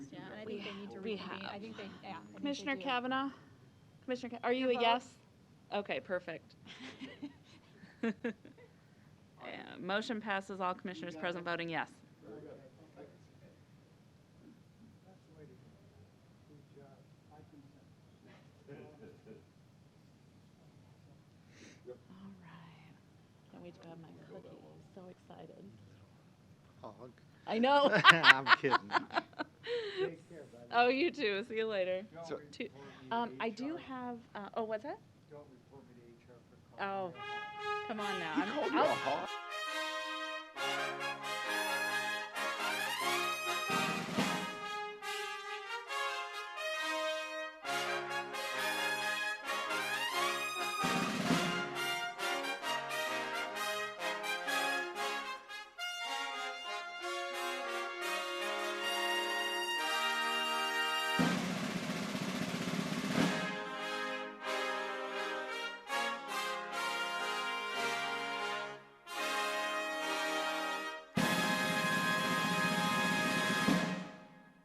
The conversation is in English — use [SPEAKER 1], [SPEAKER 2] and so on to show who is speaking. [SPEAKER 1] to
[SPEAKER 2] We
[SPEAKER 1] reconvene. I think
[SPEAKER 2] have.
[SPEAKER 1] they, yeah. I think they
[SPEAKER 2] Commissioner
[SPEAKER 1] do.
[SPEAKER 2] Kavanaugh? Commissioner, Ka- are you a
[SPEAKER 1] vote?
[SPEAKER 2] yes? Okay, perfect. Yeah, Motion passes, all commissioners present voting yes.
[SPEAKER 3] That's the way to go. Good job. I consent.
[SPEAKER 2] All right. Can't wait to have my cookie. So excited.
[SPEAKER 4] Hog.
[SPEAKER 2] I know.
[SPEAKER 4] I'm kidding.
[SPEAKER 3] Take care, buddy.
[SPEAKER 2] Oh, you too. See you later.
[SPEAKER 3] Don't
[SPEAKER 4] so-
[SPEAKER 3] report
[SPEAKER 2] Two-
[SPEAKER 3] me to
[SPEAKER 2] Um, I do
[SPEAKER 3] HR.
[SPEAKER 2] have, uh, oh, what's that?
[SPEAKER 3] Don't report me to HR for calling.
[SPEAKER 2] Oh, come on now. I'm-
[SPEAKER 4] Call me a
[SPEAKER 2] I'll-
[SPEAKER 4] hog?